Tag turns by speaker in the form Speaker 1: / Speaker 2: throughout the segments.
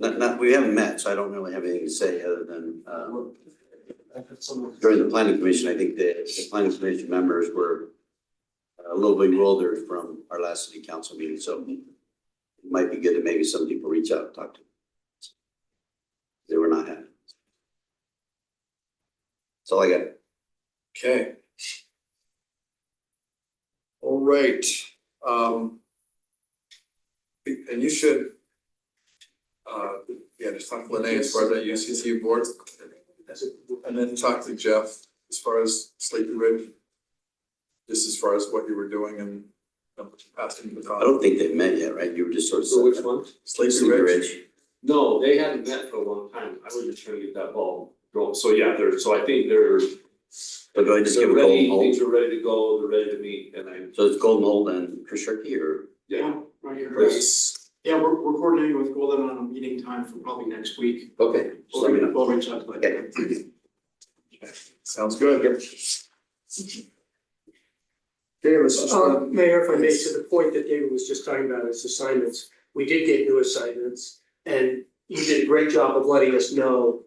Speaker 1: Not, not, we haven't met, so I don't really have anything to say other than, uh, during
Speaker 2: During
Speaker 1: the planning commission, I think the, the planning commission members were uh, a little bit older from our last city council meeting, so it might be good to maybe some people reach out and talk to them. They were not happy. That's all I got.
Speaker 3: Okay. All right, um. And you should. Uh, yeah, just talk to Lene as far as that UCC board. And then talk to Jeff as far as Sleepy Ridge. Just as far as what you were doing and um, asking the
Speaker 1: I
Speaker 3: thought.
Speaker 1: don't think they've met yet, right? You were just sort of.
Speaker 2: So which one?
Speaker 3: Oh, Sleepy
Speaker 1: Sleepy
Speaker 3: Ridge,
Speaker 1: Ridge.
Speaker 2: No, they hadn't met for a long time. I was just trying to get that ball going. So yeah, they're, so I think they're.
Speaker 1: But do I just give a
Speaker 2: they're
Speaker 1: golden
Speaker 2: ready,
Speaker 1: hold?
Speaker 2: Things are ready to go, they're ready to meet and I,
Speaker 1: So it's Golden Hole and Kershaki or?
Speaker 2: yeah.
Speaker 4: Right here.
Speaker 3: Yes.
Speaker 4: Yeah, we're, we're coordinating with Golden on a meeting time for probably next week.
Speaker 1: Okay. Just let me
Speaker 4: We'll,
Speaker 1: know.
Speaker 4: we'll reach out to them.
Speaker 1: Okay.
Speaker 3: sounds good. Okay, Mrs.
Speaker 5: Uh,
Speaker 3: Schwab.
Speaker 5: Mayor, if I may, to the point that David was just talking about his assignments, we did get new assignments, and you did a great job of letting us know.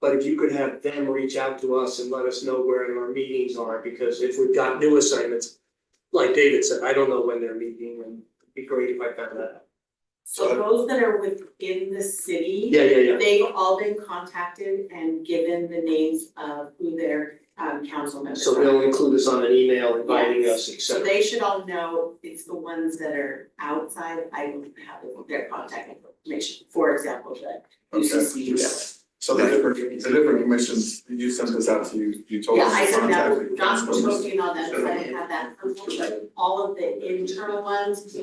Speaker 5: But if you could have them reach out to us and let us know where our meetings are, because if we've got new assignments, like David said, I don't know when they're meeting, and it'd be great if I found that. out.
Speaker 6: So those that are within the city,
Speaker 5: Yeah, yeah, yeah,
Speaker 6: they've all been contacted and given the names of who their um council members
Speaker 5: so
Speaker 6: are.
Speaker 5: they'll include us on an email inviting us, et
Speaker 6: So
Speaker 5: cetera.
Speaker 6: they should all know it's the ones that are outside, I don't have their contact information, for example, the
Speaker 3: Okay.
Speaker 6: UCC rep.
Speaker 3: So the different, the different commissions, you sent this out, so you, you told
Speaker 6: Yeah,
Speaker 3: us.
Speaker 6: I
Speaker 3: to
Speaker 6: said
Speaker 3: contact
Speaker 6: that,
Speaker 3: the
Speaker 6: not
Speaker 3: council members.
Speaker 6: working on that, because I didn't have that, unfortunately, all of the internal ones,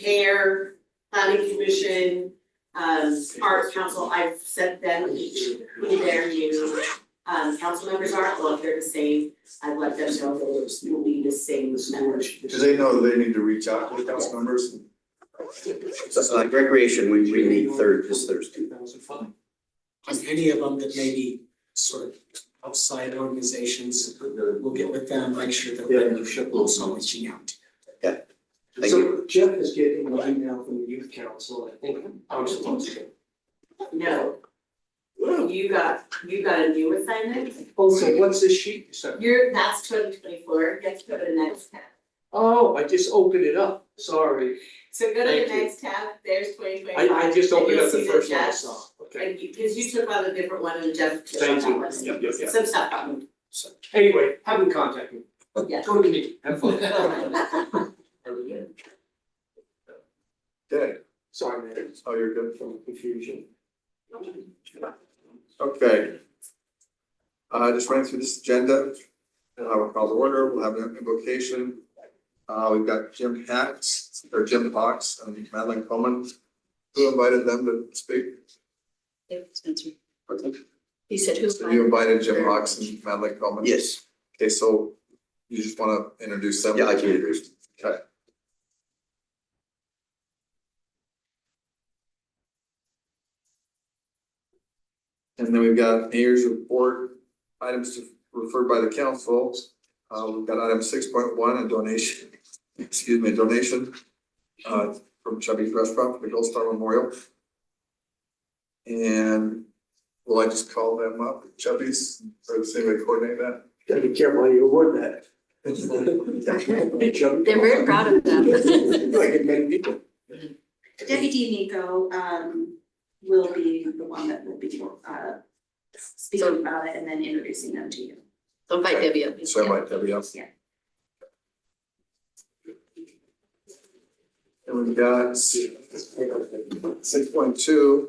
Speaker 6: care, planning commission, um, arts council, I've sent them each who their new, um, council members are, well, if they're the same, I've let them know those will be the same members.
Speaker 3: Do they know that they need to reach out to the council members?
Speaker 1: So it's like recreation, we, we meet third, this Thursday.
Speaker 7: on any of them that may be sort of outside organizations, we'll get with them, make sure that they're also reaching out.
Speaker 1: Thank
Speaker 5: So
Speaker 1: you.
Speaker 5: Jeff is getting an email from the youth council, I think, I'm supposed to.
Speaker 6: No. You got, you got a new assignment,
Speaker 5: Oh, so what's this sheet you sent?
Speaker 6: you're, that's twenty twenty-four, you have to go to the next tab.
Speaker 5: Oh, I just opened it up, sorry.
Speaker 6: So go to
Speaker 5: Thank
Speaker 6: the
Speaker 5: you.
Speaker 6: next tab, there's twenty
Speaker 5: I,
Speaker 6: twenty-five.
Speaker 5: I just opened up the
Speaker 6: And you'll
Speaker 5: first
Speaker 6: see
Speaker 5: one I
Speaker 6: Jeff-
Speaker 5: saw, okay.
Speaker 6: And you, because you took on a different one and Jeff took on
Speaker 5: Thank
Speaker 6: that
Speaker 5: you,
Speaker 6: one.
Speaker 5: yep, yep, yep.
Speaker 6: Some stuff happened.
Speaker 5: Anyway, have them contact me.
Speaker 6: Yeah.
Speaker 5: Go to me, have fun.
Speaker 3: Okay,
Speaker 5: Sorry, man,
Speaker 3: oh, you're good.
Speaker 5: from confusion.
Speaker 3: Okay. Uh, just running through this agenda, and I will call the order, we'll have an invocation. Uh, we've got Jim Hacks, or Jim Fox, and Madeline Coleman. Who invited them to speak?
Speaker 8: Spencer. He said, who's
Speaker 3: So you invited Jim Fox and Madeline Coleman?
Speaker 1: Yes,
Speaker 3: Okay, so you just wanna introduce them?
Speaker 1: yeah, I can agree.
Speaker 3: Okay. And then we've got mayor's report, items to- referred by the council. Uh, we've got item six point one, a donation, excuse me, a donation uh, from Chubby's Restaurant for the Gold Star Memorial. And will I just call them up, Chubby's, or does anybody coordinate that?
Speaker 5: Gotta be careful how you award that. Hey, Chuck.
Speaker 8: They're very proud of them.
Speaker 5: Like it many people.
Speaker 6: Deputy Nico, um, will be the one that will be, uh, speaking about it and then introducing them to you.
Speaker 8: Don't bite Debbie up.
Speaker 3: So I might, Debbie, else.
Speaker 6: Yeah.
Speaker 3: And we've got six point two,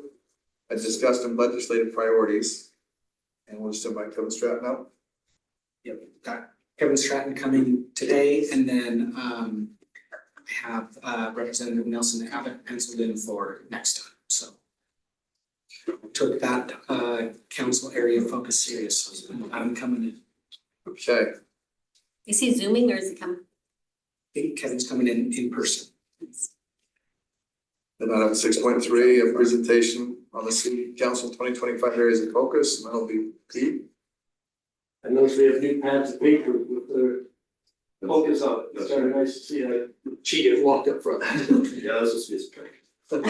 Speaker 3: I discussed in legislative priorities. And we'll just invite Kevin Stratton out.
Speaker 7: Yep, got Kevin Stratton coming today and then um I have uh Representative Nelson Abbott penciled in for next time, so. Took that uh council area focus seriously, I'm coming in,
Speaker 3: Okay,
Speaker 8: Is he zooming or is he coming?
Speaker 7: I think Kevin's coming in in person.
Speaker 3: then item six point three, a presentation on the city council twenty twenty five areas of focus, and that'll be Pete.
Speaker 5: I noticed we have new pads of paper with the focus on it, it's kind of nice to see, I cheated, walked up front.
Speaker 2: Yeah, this is his pick.